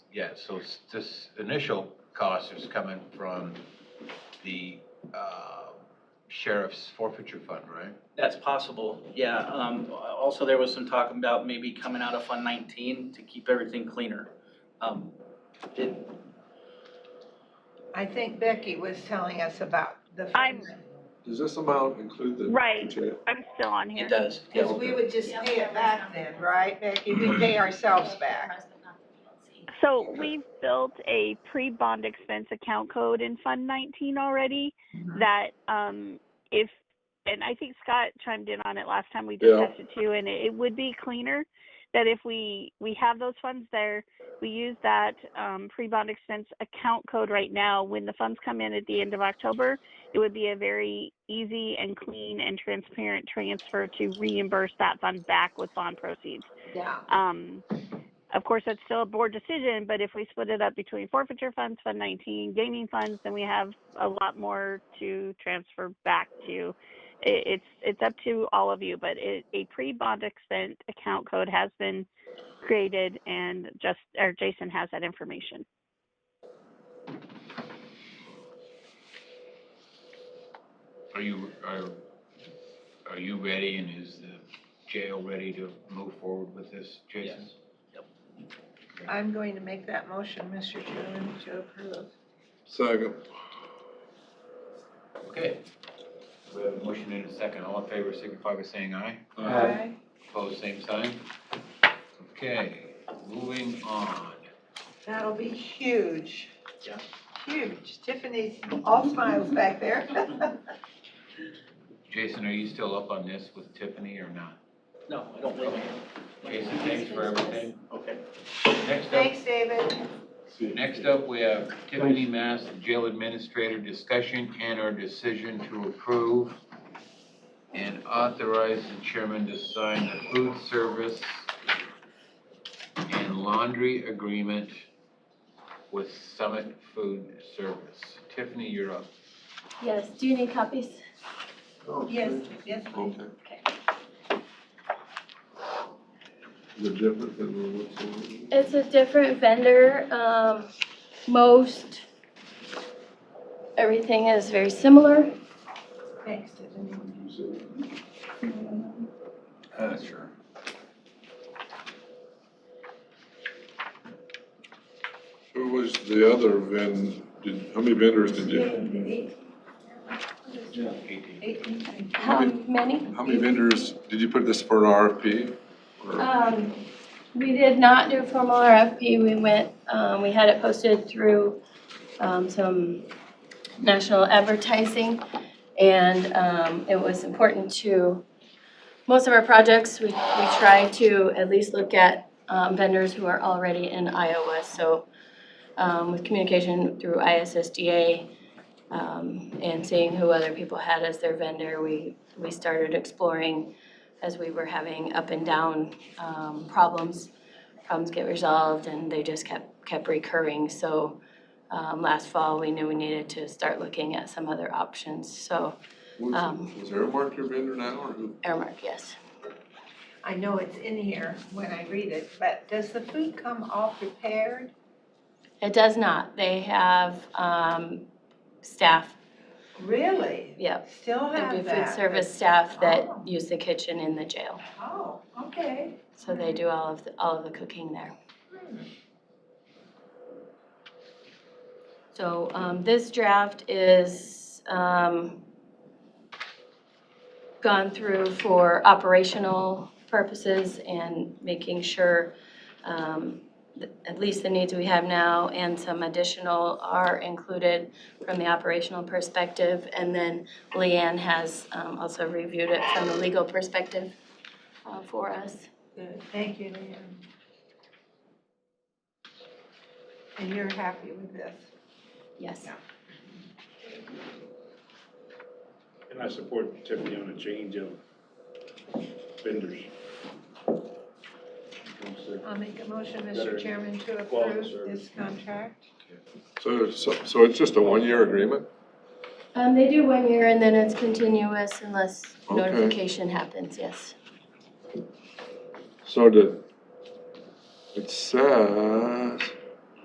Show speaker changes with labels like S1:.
S1: Yeah, so s- this initial cost is coming from the uh, sheriff's forfeiture fund, right?
S2: That's possible, yeah. Um, also, there was some talk about maybe coming out of Fund nineteen to keep everything cleaner. Um, it,
S3: I think Becky was telling us about the.
S4: I'm-
S5: Does this amount include the?
S4: Right.
S5: jail?
S4: I'm still on
S2: it
S4: here.
S2: does. yeah.
S3: Because we would just pay it back then, right, Becky? We pay ourselves back.
S4: So we've built a pre-bond expense account code in Fund 19 already that um, if, and I think Scott chimed in on it last time we
S5: Yeah.
S4: discussed it too, and it, it would be cleaner that if we, we have those funds there, we use that um, pre-bond expense account code right now. When the funds come in at the end of October, it would be a very easy and clean and transparent transfer to reimburse that fund back with bond proceeds.
S3: Yeah.
S4: Um, of course, that's still a board decision, but if we split it up between forfeiture funds, Fund 19, gaming funds, then we have a lot more to transfer back to. It, it's, it's up to all of you, but it, a pre-bond expense account code has been created and just, or Jason has that information.
S1: Are you, are, are you ready and is the jail ready to move forward with this, Jason?
S2: Yes.
S3: I'm going to make that motion, Mr. Chairman, to approve.
S5: Second.
S1: Okay. We have a motion and a second. All in favor signify by saying aye.
S3: Aye.
S1: Opposed, same sign. Okay, moving on.
S3: That'll be huge.
S2: Yeah.
S3: Huge. Tiffany's all smiles back there.
S1: Jason, are you still up on this with Tiffany or not?
S2: No, I don't believe it.
S1: Jason, thanks for everything.
S2: Okay.
S1: Next up,
S3: Thanks, David.
S5: See.
S1: next up, we have Tiffany Mass, Jail Administrator, discussion and our decision to approve and authorize the chairman to sign the food service and laundry agreement with Summit Food Service. Tiffany, you're up.
S6: Yes, do you need copies?
S5: Okay.
S3: yes.
S5: Oh, Okay. Is it different than what's in?
S6: It's a different vendor, um, most, everything is very similar.
S3: Thanks, Tiffany.
S1: Uh, sure.
S5: Who was the other vend, did, how many vendors did you,
S1: Eighteen.
S6: How many?
S5: how many vendors, did you put this for an RFP? Or-
S6: Um, we did not do a formal RFP, we went, um, we had it posted through, um, some national advertising. And, um, it was important to, most of our projects, we, we try to at least look at, um, vendors who are already in Iowa. So, um, with communication through ISSDA, um, and seeing who other people had as their vendor, we, we started exploring as we were having up and down um, problems. Problems get resolved and they just kept, kept recurring. So um, last fall, we knew we needed to start looking at some other options. So
S5: Was
S6: um,
S5: was Airmark your vendor now, or who?
S6: Airmark, yes.
S3: I know it's in here when I read it, but does the food come all prepared?
S6: It does not. They have um, staff,
S3: Really?
S6: yep.
S3: Still
S6: There'd
S3: have
S6: be food
S3: that?
S6: service staff
S3: Oh.
S6: that use the kitchen in the jail.
S3: Oh, okay.
S6: So they do all of, the- all of the cooking there. So um, this draft is um, gone through for operational purposes and making sure um, th- at least the needs we have now and some additional are included from the operational perspective. And then Leanne has um, also reviewed it from the legal perspective uh, for us.
S3: Good. Thank you, Leanne. And you're happy with this?
S6: Yes.
S7: And I support Tiffany on a change of vendors.
S3: I'll make a motion,
S7: Better
S3: Mr. Chairman, to
S7: quality
S3: approve
S7: service.
S3: this contract.
S5: So, so, so it's just a one-year agreement?
S6: Um, they do one year and then it's continuous unless
S5: Okay.
S6: notification happens, yes.
S5: So the, it says,